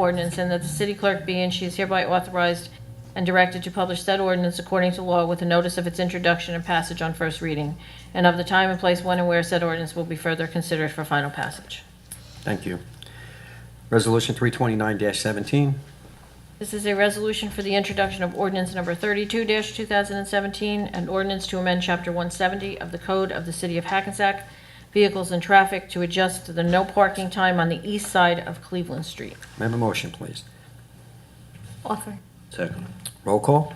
ordinance, and that the city clerk be and she is hereby authorized and directed to publish said ordinance according to law with a notice of its introduction and passage on first reading, and of the time and place when and where said ordinance will be further considered for final passage. Thank you. Resolution 329-17, This is a resolution for the introduction of ordinance number 32-2017, an ordinance to amend Chapter 170 of the Code of the City of Hackensack, Vehicles and Traffic to adjust to the no parking time on the east side of Cleveland Street. may I have a motion, please? Offer. Second. Roll call?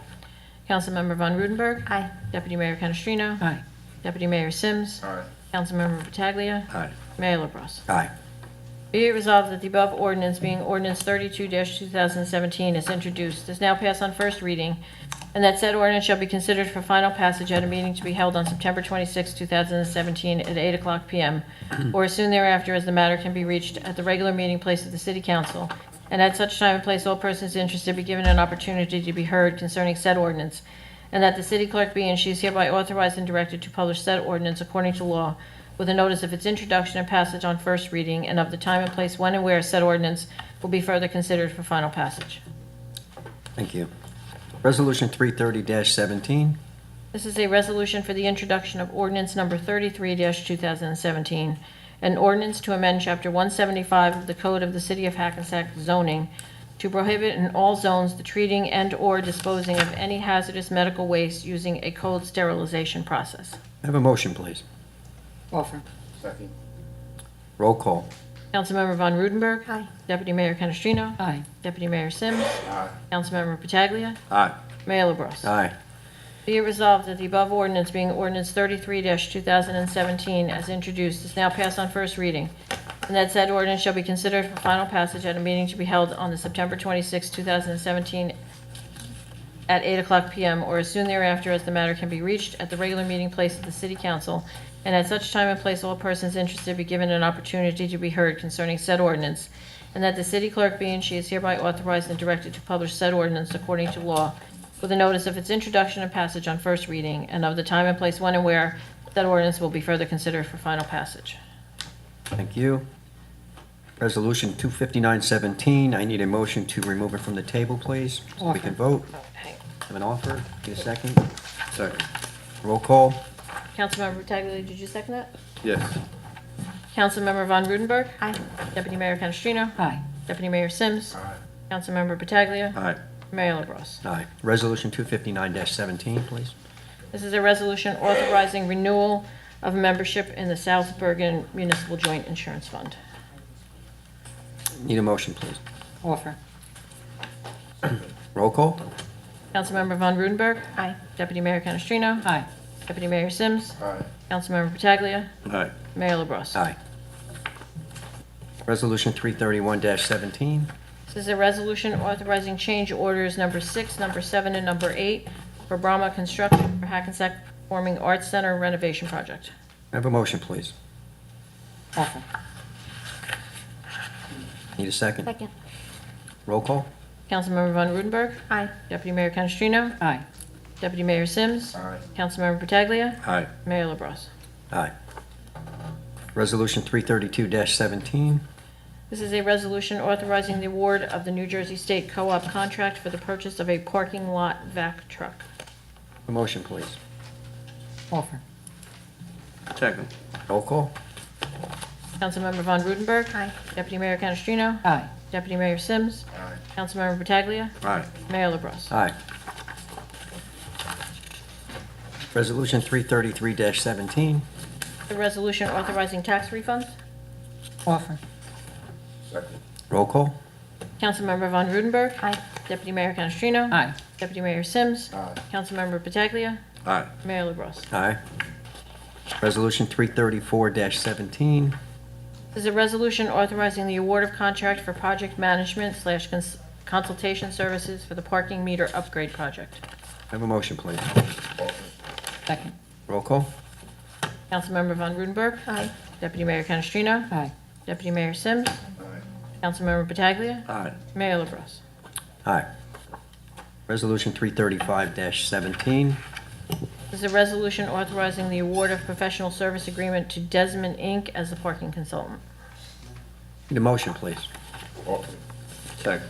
Councilmember Von Rudenberg. Aye. Deputy Mayor Canestrino. Aye. Deputy Mayor Sims. Aye. Councilmember Pataglia. Aye. Mayor LaBrus. Aye. Be it resolved that the above ordinance, being ordinance 32-2017, is introduced, is now passed on first reading, and that said ordinance shall be considered for final passage at a meeting to be held on September 26, 2017, at 8 o'clock p.m., or as soon thereafter as the matter can be reached at the regular meeting place of the city council, and at such time and place all persons interested be given an opportunity to be heard concerning said ordinance, and that the city clerk be and she is hereby authorized and directed to publish said ordinance according to law with a notice of its introduction and passage on first reading and of the time and place when and where said ordinance will be further considered for final passage. Thank you. Resolution 330-17, This is a resolution for the introduction of ordinance number 33-2017, an ordinance to amend Chapter 175 of the Code of the City of Hackensack zoning to prohibit in all zones the treating and/or disposing of any hazardous medical waste using a cold sterilization process. May I have a motion, please? Offer. Second. Roll call? Councilmember Von Rudenberg. Aye. Deputy Mayor Canestrino. Aye. Deputy Mayor Sims. Aye. Councilmember Pataglia. Aye. Mayor LaBrus. Aye. Be it resolved that the above ordinance being ordinance 33-2017 as introduced is now passed on first reading, and that said ordinance shall be considered for final passage at a meeting to be held on the September 26, 2017, at 8 o'clock p.m. or as soon thereafter as the matter can be reached at the regular meeting place of the city council, and at such time and place all persons interested be given an opportunity to be heard concerning said ordinance, and that the city clerk be and she is hereby authorized and directed to publish said ordinance according to law with a notice of its introduction and passage on first reading, and of the time and place when and where that ordinance will be further considered for final passage. Thank you. Resolution 259-17, I need a motion to remove it from the table, please. so We can vote. Okay. Have an offer, need a second? Second. Roll call? Councilmember Pataglia, did you second that? Yes. Councilmember Von Rudenberg. Aye. Deputy Mayor Canestrino. Aye. Deputy Mayor Sims. Aye. Councilmember Pataglia. Aye. Mayor LaBrus. Aye. Resolution 259-17, please. This is a resolution authorizing renewal of membership in the South Bergen Municipal Joint Insurance Fund. Need a motion, please. Offer. Roll call? Councilmember Von Rudenberg. Aye. Deputy Mayor Canestrino. Aye. Deputy Mayor Sims. Aye. Councilmember Pataglia. Aye. Mayor LaBrus. Aye. Resolution 331-17, This is a resolution authorizing change orders number six, number seven, and number eight for Brahma Construction for Hackensack Performing Arts Center renovation project. I have a motion, please. Offer. Need a second? Roll call? Councilmember Von Rudenberg. Aye. Deputy Mayor Canestrino. Aye. Deputy Mayor Sims. Aye. Councilmember Pataglia. Aye. Mayor LaBrus. Aye. Resolution 332-17, This is a resolution authorizing the award of the New Jersey State Co-op contract for the purchase of a parking lot vac truck. a motion, please. Offer. Second. Roll call? Councilmember Von Rudenberg. Aye. Deputy Mayor Canestrino. Aye. Deputy Mayor Sims. Aye. Councilmember Pataglia. Aye. Mayor LaBrus. Aye. Resolution 333-17, The resolution authorizing tax refunds. Offer. Second. roll call? Councilmember Von Rudenberg. Aye. Deputy Mayor Canestrino. Aye. Deputy Mayor Sims. Aye. Councilmember Pataglia. Aye. Mayor LaBrus. Aye. Resolution 334-17, This is a resolution authorizing the award of contract for project management slash cons- consultation services for the parking meter upgrade project. I have a motion, please. Offer. Second. Roll call? Councilmember Von Rudenberg. Aye. Deputy Mayor Canestrino. Aye. Deputy Mayor Sims. Aye. Councilmember Pataglia. Aye. Mayor LaBrus. Aye. Resolution 335-17, This is a resolution authorizing the award of professional service agreement to Desmond Inc. as the parking consultant. need a motion, please. Offer. Second.